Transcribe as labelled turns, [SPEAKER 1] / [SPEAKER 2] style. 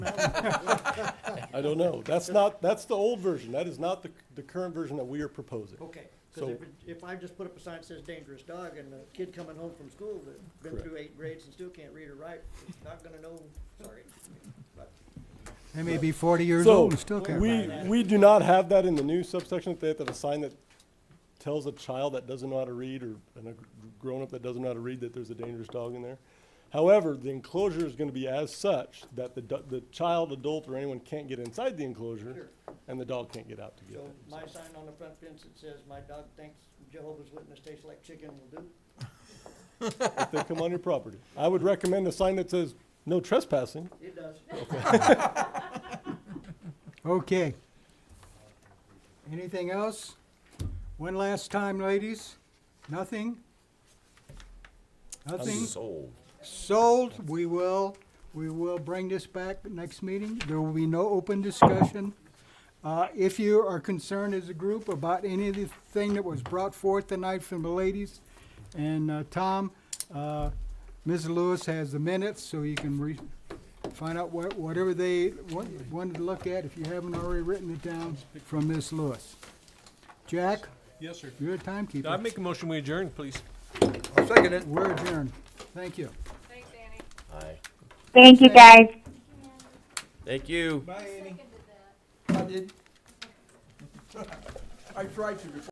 [SPEAKER 1] I don't know. That's not, that's the old version. That is not the, the current version that we are proposing.
[SPEAKER 2] Okay,
[SPEAKER 1] So-
[SPEAKER 2] because if, it- if I just put up a sign that says dangerous dog and a kid coming home from school that's been through eight grades and still can't read or write, is not gonna know, sorry. but
[SPEAKER 3] They may be forty years
[SPEAKER 1] So,
[SPEAKER 3] old and still can't
[SPEAKER 1] we,
[SPEAKER 3] read.
[SPEAKER 1] we do not have that in the new subsection, that they have to have a sign that tells a child that doesn't know how to read or and a grown-up that doesn't know how to read that there's a dangerous dog in there. However, the enclosure is gonna be as such that the, do- the child, adult, or anyone can't get inside the enclosure, and the dog can't get out to get
[SPEAKER 2] So
[SPEAKER 1] it.
[SPEAKER 2] my sign on the front fence that says, my dog thinks Jehovah's Witness tastes like chicken will do,
[SPEAKER 1] If they come on your property. I would recommend a sign that says, no trespassing.
[SPEAKER 2] it does.
[SPEAKER 3] Okay. Anything else? One last time, ladies? Nothing? Nothing?
[SPEAKER 4] Sold.
[SPEAKER 3] Sold, we will, we will bring this back next meeting. There will be no open discussion. Uh, if you are concerned as a group about any of the thing that was brought forth tonight from the ladies and, uh, Tom, uh, Ms. Lewis has the minutes, so you can re, find out what, whatever they wa- wanted to look at, if you haven't already written it down, from Ms. Lewis. Jack,
[SPEAKER 5] Yes, sir.
[SPEAKER 3] you're
[SPEAKER 5] I
[SPEAKER 3] a timekeeper.
[SPEAKER 5] make a motion, we adjourn, please.
[SPEAKER 4] I'll second it.
[SPEAKER 3] We're adjourned. Thank you.
[SPEAKER 6] Thanks, Annie.
[SPEAKER 4] Aye.
[SPEAKER 7] Thank you, guys.
[SPEAKER 4] Thank you.
[SPEAKER 5] Bye, Annie.
[SPEAKER 4] I did. I tried to.